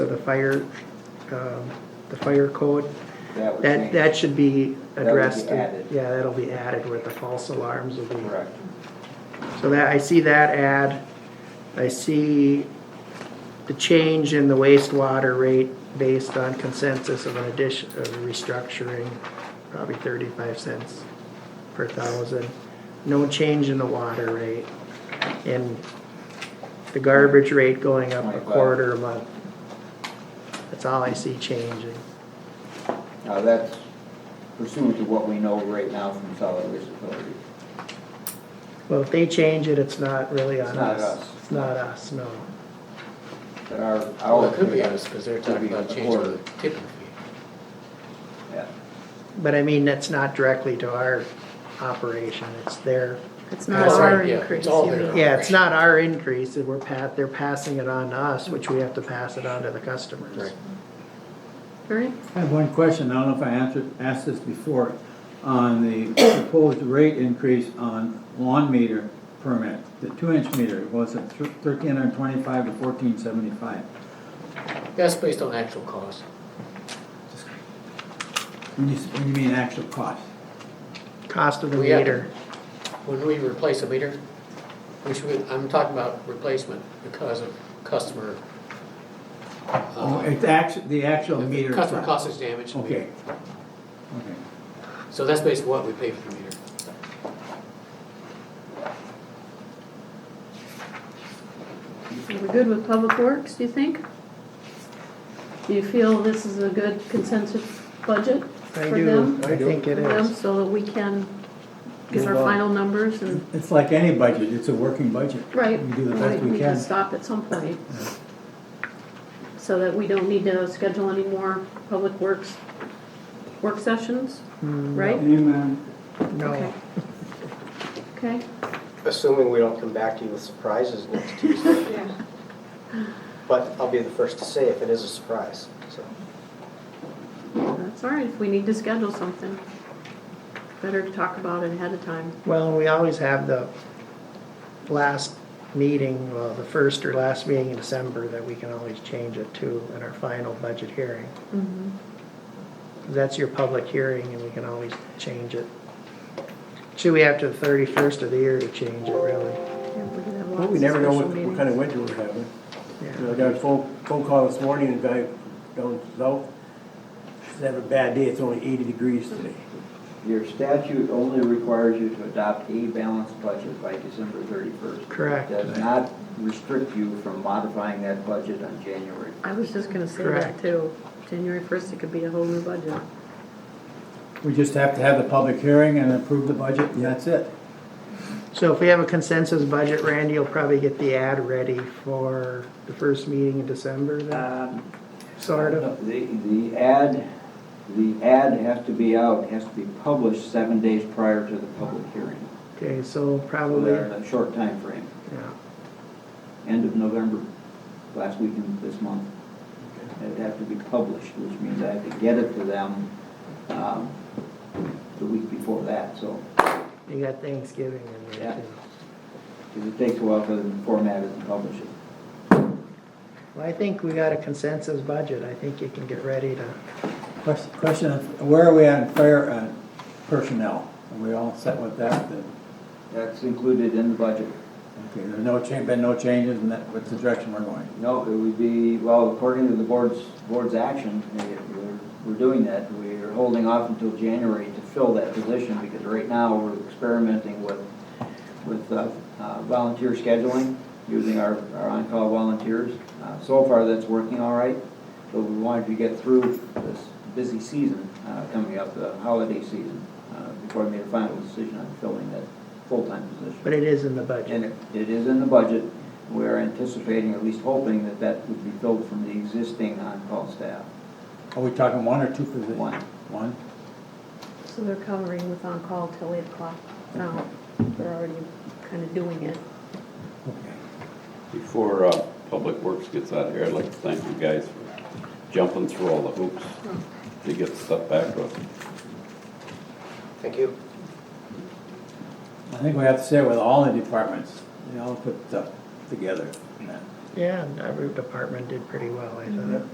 for the fire, um, the fire code. That would That, change. that should be That would be addressed. added. Yeah, that'll be added with the false alarms will be. Correct. So that, I see that ad, I see the change in the wastewater rate based on consensus of an addition, of restructuring, probably thirty-five cents per thousand. No change in the water rate, and the garbage rate going up a Twenty-five. quarter a month. That's all I see changing. Now, that's pursuant to what we know right now from solid waste authority. Well, if they change it, it's not really on It's not us. us. It's not us, no. But our, Well, our. it could be us, because they're talking Could about be a changing the quarter. tipping fee. Yeah. But I mean, that's not directly to our operation, it's their, It's not That's our right, yeah, increase, it's all you there. mean. yeah, it's not our increase, that we're pa, they're passing it on to us, which we have to pass it on to the customers. Right. Right? I have one question, I don't know if I answered, asked this before, on the proposed rate increase on lawn meter permit, the two-inch meter, was it thirteen hundred twenty-five to fourteen seventy-five? That's based on actual cost. When you, when you mean actual cost? Cost of the We have- meter, When we replace a meter, which we, I'm talking about replacement because of customer. uh, Oh, it's actu, the actual the meter. Customer itself. cost is damaged. in the Okay. meter. Okay. So that's basically what we pay for the meter. Are we good with Public Works, do you think? Do you feel this is a good consensus budget I for do, them? I think it For them, is. So that we can get our Move on. final numbers and, It's like any budget, it's a working budget. right? We do the right, best we need to can. stop at some point. So that we don't need to schedule any more Public Works work sessions, right? Amen. Mm, No, Okay. Okay, Assuming we don't come back to you with surprises next Tuesday. But I'll be the first to say if it is a surprise, so. that's all right, if we need to schedule something, better to talk about it ahead of time. well, we always have the last meeting, well, the first or last meeting in December that we can always change it to in our final budget hearing. That's your public hearing and we can always change it. Should we have to the thirty-first of the year to change it, really? Well, Well, we never know what, what kind of winter we're having. You know, I Yeah. got a phone, phone call this morning, a guy down south, says having a bad day, it's only eighty degrees today. Your statute only requires you to adopt a balanced budget by December thirty-first. Correct. Does not restrict you from modifying that budget on January. I was just gonna say Correct. that too. January first, it could be a whole new budget. We just have to have the public hearing and approve the budget, and that's it. So if we have a consensus budget, Randy, you'll probably get the ad ready for the first meeting in December then, Um, sort of? The, the ad, the ad has to be out, has to be published seven days prior to the public hearing. Okay, so probably, Within yeah, a short time frame. end of November, last weekend of this month. It'd have to be published, which means I have to get it to them um, the week before that, so, you got Thanksgiving in there Yeah. too. 'cause it takes a while for them to format it and publish it. Well, I think we got a consensus budget, I think you can get ready to, Question, question of where are we on fire uh, personnel? Are we all set with that? The- That's included in the budget. Okay, there's no change, been no changes in that, what's the direction we're going? No, it would be, well, according to the board's, board's action, eh, we're, we're doing that. We're holding off until January to fill that position, because right now, we're experimenting with, with uh, uh, volunteer scheduling, using our, our on-call volunteers. Uh, So far, that's working all right, but we wanted to get through this busy season uh, coming up, the holiday season, uh, before we made a final decision on filling that full-time position. but it is in the budget. And it- it is in the budget. We're anticipating, at least hoping, that that would be filled from the existing on-call staff. Are we talking one or two positions? One. One? So they're covering with on-call till eight o'clock now. They're already kinda doing it. Okay. Before uh, Public Works gets out of here, I'd like to thank you guys for jumping through all the hoops to get stuff back to us. Thank you. I think we have to say it with all the departments, they all put stuff together. Yeah, and every department did pretty well, I thought.